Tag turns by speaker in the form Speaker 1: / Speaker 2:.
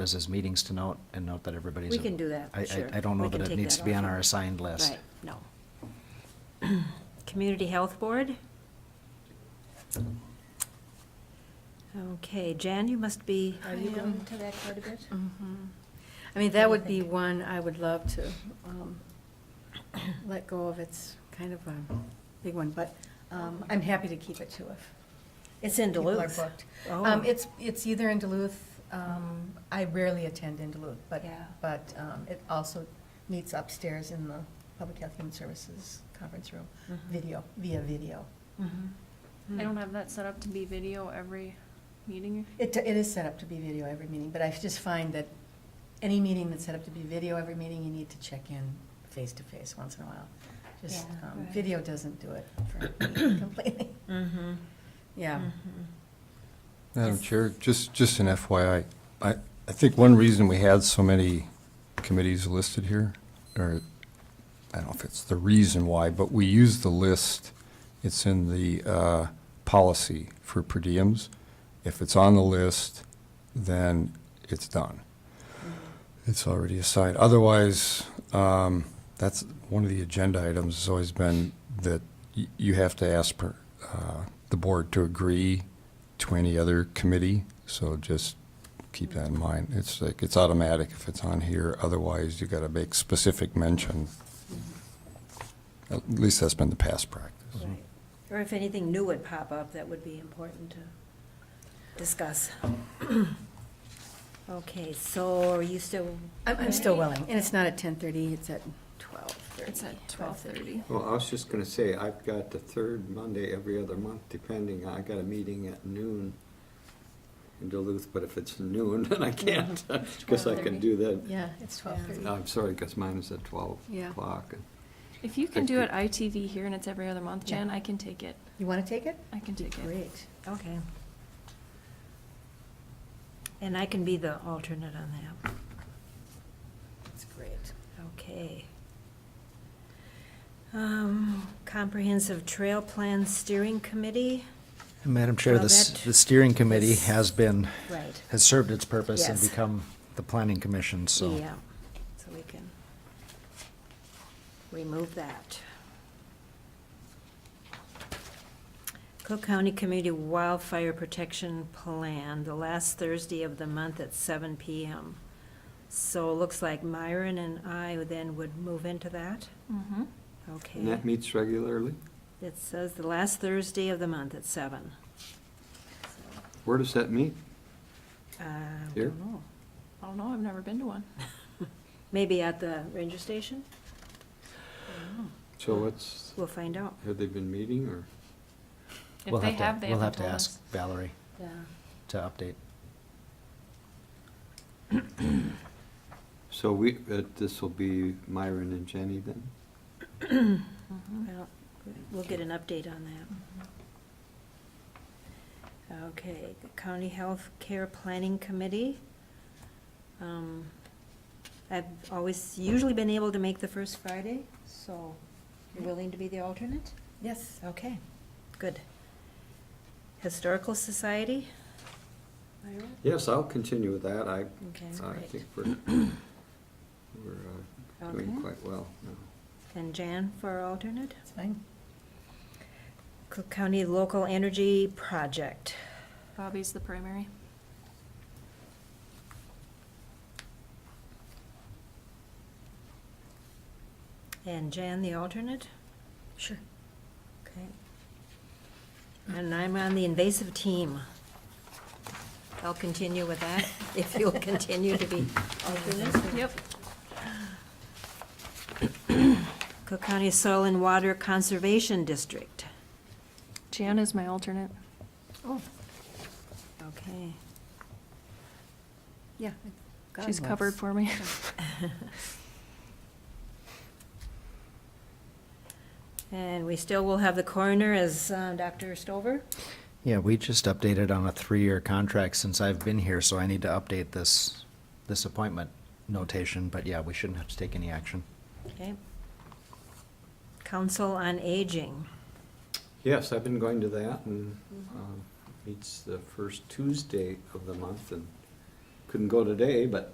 Speaker 1: as his meetings to note and note that everybody's.
Speaker 2: We can do that,
Speaker 1: I- I-
Speaker 2: sure.
Speaker 1: I don't know
Speaker 2: We can
Speaker 1: that it
Speaker 2: take
Speaker 1: needs
Speaker 2: that
Speaker 1: to be on
Speaker 2: off.
Speaker 1: our assigned list.
Speaker 2: Right, no. Community Health Board? Okay, Jan, you must be,
Speaker 3: Are you going to that quite a bit?
Speaker 4: Mm-hmm. I
Speaker 3: do
Speaker 4: mean,
Speaker 3: you
Speaker 4: that would be
Speaker 3: think?
Speaker 4: one I would love to um, let go of. It's kind of a big one, but um, I'm happy to keep it to if.
Speaker 2: it's in
Speaker 4: people are
Speaker 2: Duluth.
Speaker 4: booked.
Speaker 2: Oh.
Speaker 4: Um, It's, it's either in Duluth, um, I rarely attend in Duluth, but,
Speaker 2: Yeah.
Speaker 4: but um, it also meets upstairs in the Public Health Human Services Conference Room,
Speaker 2: Mm-hmm.
Speaker 4: video, via video.
Speaker 3: I don't have that set up to be video every meeting.
Speaker 4: It, it is set up to be video every meeting, but I just find that any meeting that's set up to be video every meeting, you need to check in face to face once in a while. Just,
Speaker 2: Yeah,
Speaker 4: um,
Speaker 2: right.
Speaker 4: video doesn't do it for me completely.
Speaker 1: Mm-hmm.
Speaker 2: Mhm.
Speaker 4: Yeah.
Speaker 3: Mm.
Speaker 5: Madam
Speaker 2: Yes.
Speaker 5: Chair, just, just an FYI, I, I think one reason we had so many committees listed here, or, I don't know if it's the reason why, but we use the list, it's in the, uh, policy for per diems. If it's on the list, then it's done. It's already assigned. Otherwise, um, that's, one of the agenda items has always been that y- you have to ask per, uh, the board to agree to any other committee, so just keep that in mind. It's like, it's automatic if it's on here, otherwise you gotta make specific mention. At least that's been the past practice.
Speaker 2: Right. Or if anything new would pop up, that would be important to discuss. Okay, so are you still?
Speaker 4: I'm, I'm still willing, and it's not at ten thirty, it's at twelve thirty.
Speaker 3: It's at twelve thirty.
Speaker 6: Well, I was just gonna say, I've got the third Monday every other month, depending, I got a meeting at noon in Duluth, but if it's noon, then I can't, because I can do that.
Speaker 4: Yeah, it's twelve thirty.
Speaker 6: I'm sorry, because mine is at twelve
Speaker 4: Yeah.
Speaker 6: o'clock.
Speaker 3: If you can do it ITV here and it's every other month,
Speaker 4: Yeah.
Speaker 3: Jan, I can take it.
Speaker 4: You wanna take it?
Speaker 3: I can take it.
Speaker 4: Great.
Speaker 2: Okay. And I can be the alternate on that.
Speaker 4: That's great.
Speaker 2: Okay. Um, Comprehensive Trail Plan Steering Committee?
Speaker 1: Madam Chair,
Speaker 2: Well,
Speaker 1: this,
Speaker 2: that-
Speaker 1: the steering committee
Speaker 2: this-
Speaker 1: has been,
Speaker 2: Right.
Speaker 1: has served its purpose and
Speaker 2: Yes.
Speaker 1: become the planning commission, so.
Speaker 2: Yeah, so we can remove that. Cook County Community Wildfire Protection Plan, the last Thursday of the month at seven PM. So it looks like Myron and I then would move into that,
Speaker 3: Mhm.
Speaker 2: okay?
Speaker 6: And that meets regularly?
Speaker 2: It says the last Thursday of the month at seven.
Speaker 6: Where does that meet?
Speaker 2: Uh, I
Speaker 6: Here?
Speaker 2: don't know.
Speaker 3: I don't know, I've never been to one.
Speaker 2: Maybe at the ranger station? Uh,
Speaker 6: So what's,
Speaker 2: We'll find out.
Speaker 6: have they been meeting, or?
Speaker 3: If
Speaker 1: we'll
Speaker 3: they
Speaker 1: to-
Speaker 3: have, they
Speaker 1: We'll
Speaker 3: haven't
Speaker 1: have to
Speaker 3: told us.
Speaker 1: ask Valerie
Speaker 2: Yeah.
Speaker 1: to update.
Speaker 6: So we, uh, this will be Myron and Jenny then?
Speaker 3: Mm-hmm.
Speaker 2: Well, we'll get an update on that. Okay, the County Health Care Planning Committee. Um, I've always, usually been able to make the first Friday, so you're willing to be the alternate?
Speaker 4: Yes.
Speaker 2: Okay, good. Historical Society? Myra?
Speaker 6: Yes, I'll continue with that. I,
Speaker 2: Okay.
Speaker 6: I
Speaker 2: Great.
Speaker 6: think we're, we're uh, doing
Speaker 2: Okay.
Speaker 6: quite well now.
Speaker 2: And Jan for alternate?
Speaker 4: It's fine.
Speaker 2: Cook County Local Energy Project.
Speaker 3: Bobby's the primary.
Speaker 2: And Jan, the alternate?
Speaker 4: Sure.
Speaker 2: Okay. And I'm on the invasive team. I'll continue with that, if you'll continue to be alternate.
Speaker 3: Yep.
Speaker 2: Cook County Soil and Water Conservation District.
Speaker 3: Jan is my alternate.
Speaker 4: Oh,
Speaker 2: Okay.
Speaker 4: yeah. God
Speaker 3: She's
Speaker 4: knows.
Speaker 3: covered for me.
Speaker 2: And we still will have the coroner as uh, Dr. Stover?
Speaker 1: Yeah, we just updated on a three-year contract since I've been here, so I need to update this, this appointment notation, but yeah, we shouldn't have to take any action.
Speaker 2: Okay. Council on Aging.
Speaker 6: Yes, I've been going to that and um, meets the first Tuesday of the month and couldn't go today, but